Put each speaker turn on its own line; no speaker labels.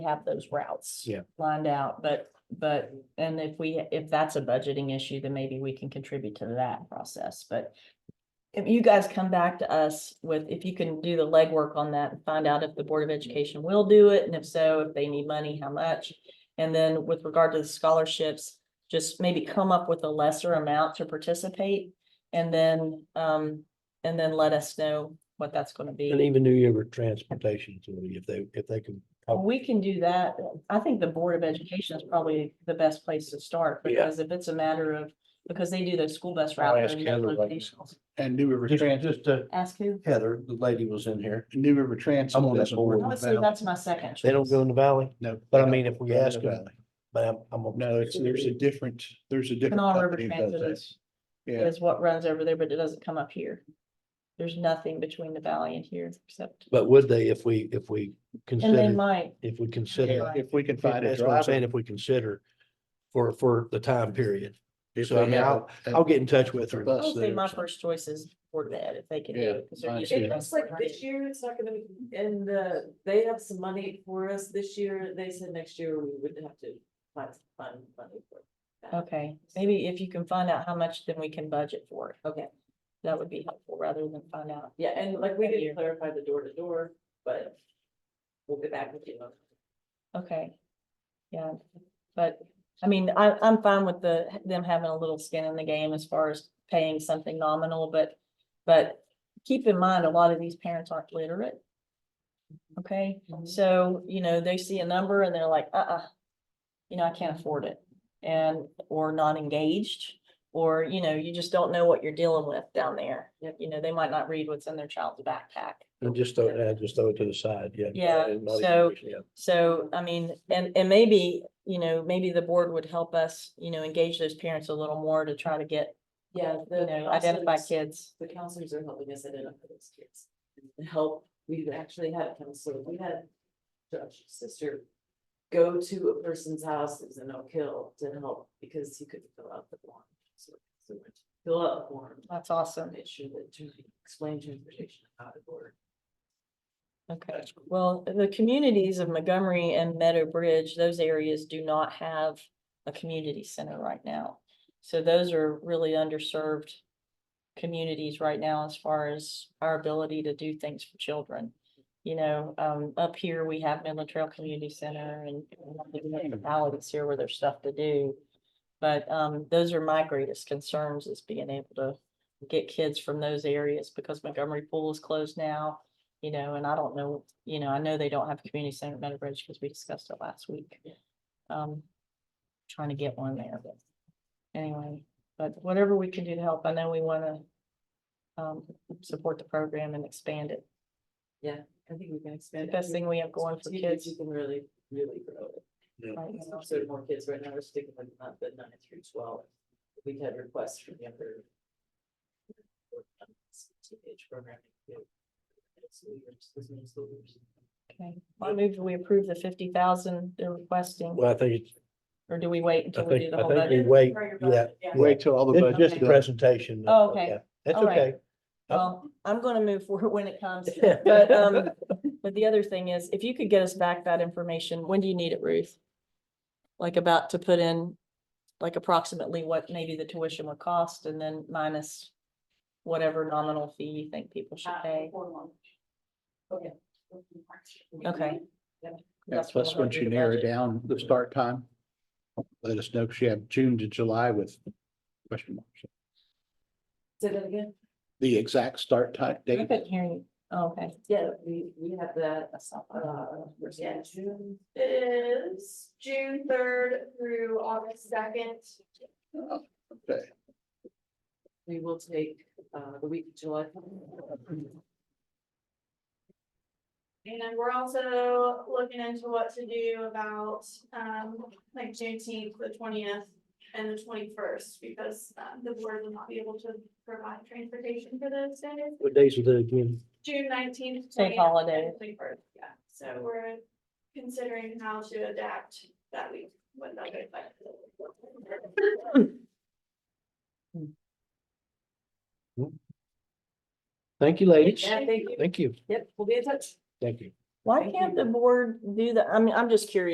have those routes.
Yeah.
Lined out, but, but, and if we, if that's a budgeting issue, then maybe we can contribute to that process, but. If you guys come back to us with, if you can do the legwork on that and find out if the Board of Education will do it, and if so, if they need money, how much? And then with regard to the scholarships, just maybe come up with a lesser amount to participate. And then, um, and then let us know what that's gonna be.
And even New Year Transportation, Authority, if they, if they can.
Well, We can do that. I think the Board of Education is probably the best place to start,
Yeah.
because if it's a matter of, because they do those school bus
I'll
routes.
ask
and those
Heather right now.
locations.
And New River
Just,
Trans,
just, uh,
Ask who?
Heather, the lady was in here.
New River Trans.
I'm on that board.
No,
Honestly, that's my second.
They don't go in the valley, but I mean, if we ask them,
No,
but I'm, I'm. gonna-
it's, there's a different, there's a different.
Canal River
company that does
Transit is,
that. Yeah,
is what runs over there, but it doesn't come up here. There's nothing between the valley and here except,
But would they, if we, if we
and they
consider,
might,
if we
Yeah,
consider,
if we can find a
that's what I'm saying,
driver.
if we consider for, for the time period.
if
So I
we
mean,
have
I'll,
a-
I'll get in touch with her.
Bus
I would say
there
my
or something.
first choice is Board of Ed, if they can do
Yeah,
it. 'cause they're
mine
used to
too.
It
it.
looks like this year, it's not gonna be, and the, they have some money for us this year, they said next year we would have to find, find money for. that.
Okay, maybe if you can find out how much, then we can budget for it.
Okay.
That would be helpful rather than find out.
Yeah, and like we
That year.
didn't clarify the door to door, but we'll get back with you. on
Okay. Yeah, but, I mean, I, I'm fine with the, them having a little skin in the game as far as paying something nominal, but, but keep in mind, a lot of these parents aren't literate. Okay,
Mhm.
so, you know, they see a number and they're like, uh-uh, you know, I can't afford it. And, or not engaged, or, you know, you just don't know what you're dealing with down there.
Yep.
You know, they might not read what's in their child's backpack.
And just throw, yeah, just throw it to the side, yeah.
Yeah,
And not even-
so-
yeah.
So, I mean, and, and maybe, you know, maybe the board would help us, you know, engage those parents a little more to try to get,
that. Yeah,
you
the.
know, identify
counselors-
kids.
The counselors are helping us identify those kids. and Help, we've actually had a counselor, we had Josh's sister go to a person's house that was in Oak Hill to help because he couldn't fill out the form. So so we went to Fill out the form,
That's awesome.
make sure that, trans- explain transportation out of order.
Okay. Well, the communities of Montgomery and Meadow Bridge, those areas do not have a community center right now. So those are really underserved communities right now as far as our ability to do things for children. You know, um, up here, we have Midland Trail Community Center and municipalities here where there's stuff to do. But, um, those are my greatest concerns is being able to get kids from those areas because Montgomery Pool is closed now. You know, and I don't know, you know, I know they don't have a community center at Meadow Bridge because we discussed it last week.
Yeah.
Um, trying to get one there, but anyway, but whatever we can do to help, I know we wanna um, support the program and expand it.
I think we can
The
expand. it.
best thing we have going for
Particularly if
kids.
You can really, really grow it.
right now.
So there are more kids right now, we're sticking with not the nine through twelve. We've had requests from younger. Teenage programming. too. It's leaders, it's means leaders.
Okay, I move that we approve the fifty thousand they're requesting,
Well, I think it's,
or do we wait until
I
we do
think-
the
I
whole
think we
budget?
wait,
Prior
yeah.
budget,
Wait till all the
It's
budget's
just a
done.
presentation.
Oh, okay.
Yeah, That's
All right.
okay.
Well, Um, I'm gonna move forward when it comes, but, um, but the other thing is, if you could get us back that information, when do you need it, Ruth? Like about to put in, like approximately what maybe the tuition would cost and then minus whatever nominal fee you think people should pay. Okay.
Yeah,
what
Plus,
we'll
once
do
you
the
narrow
budget.
down the start time, let us know, because you have June to July with question marks.
Say that again?
The exact start time
I
date,
couldn't hear you. Oh, Okay.
Yeah, we, we have that,
That's not fine.
uh, where's that?
Yeah. It is June third through August second.
okay,
we will take, uh, the week of July.
And we're also looking into what to do about, um, like Juneteenth, the twentieth and the twenty-first, because, um, the board will not be able to provide transportation for those days.
What days are they again?
June nineteenth.
State holiday.
Yeah, so we're considering how to adapt that week, what that would like.
Thank you, ladies.
Yeah, thank you.
Thank you.
Yep, we'll be in touch.
Thank you.
Why
Thank
can't
you.
the board do that? I mean, I'm just curious.